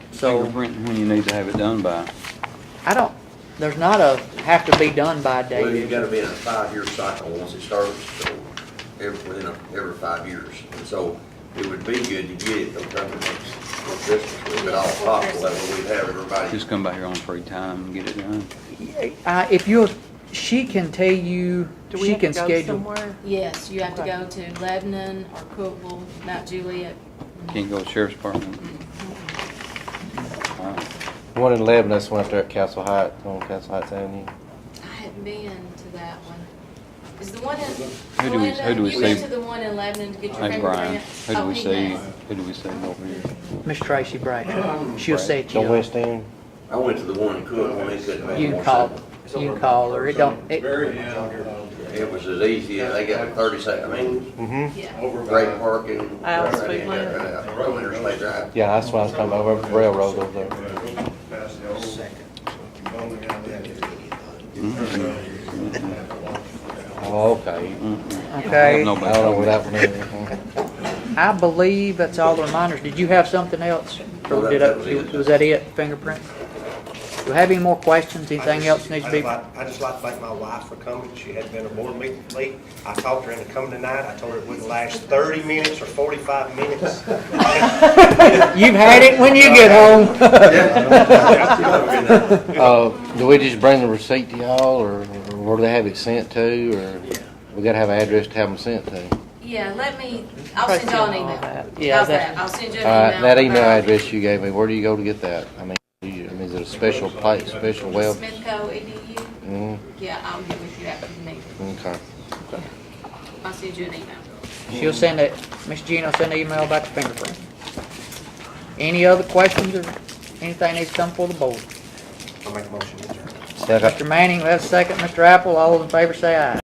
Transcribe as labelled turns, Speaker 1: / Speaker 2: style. Speaker 1: So-
Speaker 2: fingerprint when you need to have it done by.
Speaker 1: I don't, there's not a have to be done by date.
Speaker 3: Well, you
Speaker 1: is
Speaker 3: gotta
Speaker 1: there?
Speaker 3: be in a five-year cycle once it starts, so every, within a, every five years. And so it would be good to get it sometime next, for Christmas, if at all possible, that way we'd have everybody.
Speaker 2: Just come by here on free time and get it done.
Speaker 1: Uh, if you'll, she can tell you,
Speaker 4: Do we
Speaker 1: she
Speaker 4: have to
Speaker 1: can
Speaker 4: go
Speaker 1: schedule.
Speaker 4: somewhere?
Speaker 5: Yes, you have to
Speaker 4: Okay.
Speaker 5: go to Lebanon or Cookville, Mount Juliet.
Speaker 2: Can't go to sheriff's department. All right.
Speaker 6: One in Lebanon, that's one up there at Castle Heights, on Castle Heights Avenue.
Speaker 5: I haven't been to that one. Is the one in?
Speaker 2: Who do we- who do we
Speaker 5: Glenda, You went
Speaker 2: see?
Speaker 5: to the one in Lebanon to get your
Speaker 2: Hey, Brian,
Speaker 5: fingerprint?
Speaker 2: who do
Speaker 5: Oh,
Speaker 2: we
Speaker 5: he
Speaker 2: see,
Speaker 5: has.
Speaker 2: who do we see over here?
Speaker 1: Miss Tracy Bradshaw, she'll say to
Speaker 6: The
Speaker 1: you.
Speaker 6: West End.
Speaker 3: I went to the one in Cook, when they couldn't make
Speaker 1: You
Speaker 3: more
Speaker 1: can call,
Speaker 3: sense.
Speaker 1: you can call her, it don't, it,
Speaker 7: Very end, uh,
Speaker 3: It was as easy, as they got a thirty second, I mean,
Speaker 6: Mm-hmm.
Speaker 5: Yeah.
Speaker 7: over
Speaker 3: great
Speaker 7: by.
Speaker 3: parking.
Speaker 4: Al's
Speaker 3: right
Speaker 4: Food
Speaker 3: in, right
Speaker 4: Land.
Speaker 3: out, right under State Drive.
Speaker 6: Yeah, that's what I was talking about, over the railroad over there.
Speaker 7: Past the old- Bowling alley.
Speaker 6: Oh, okay.
Speaker 1: okay.
Speaker 2: Nobody
Speaker 6: I don't know
Speaker 2: told
Speaker 6: where
Speaker 2: me.
Speaker 6: that one is.
Speaker 1: I believe that's all the reminders. Did you have something else?
Speaker 3: No,
Speaker 1: Or
Speaker 3: that-
Speaker 1: did
Speaker 3: that was it.
Speaker 1: I, was that it, fingerprint? Do you have any more questions, anything else needs to
Speaker 8: I'd
Speaker 1: be?
Speaker 8: like- I'd just like to thank my wife for coming. She had been a board meeting late. I talked her into coming tonight. I told her it wouldn't last 30 minutes or 45 minutes.
Speaker 1: You've had it when you get home.
Speaker 6: Uh, do we just bring the receipt to y'all, or or where do they have it sent to, or? We gotta have an address to have them sent to.
Speaker 5: Yeah, let me, I'll send y'all an email.
Speaker 1: Yeah,
Speaker 5: How's
Speaker 1: that-
Speaker 5: that? I'll send you an
Speaker 6: All right,
Speaker 5: email.
Speaker 6: Uh, that email
Speaker 5: about
Speaker 6: address you gave me, where do you go to get that? I mean, do you- I mean, is it a special place, special web?
Speaker 5: Smithco EDU.
Speaker 6: Mm,
Speaker 5: Yeah, I'll get with you after the meeting.
Speaker 6: okay.
Speaker 5: I'll send you an email.
Speaker 1: She'll send it, Miss Jean will send an email about the fingerprint. Any other questions or anything needs to come for the board?
Speaker 8: I'll make a motion to adjourn.
Speaker 6: Second.
Speaker 1: Mr. Manning, let's second. Mr. Apple, all those in favor say aye.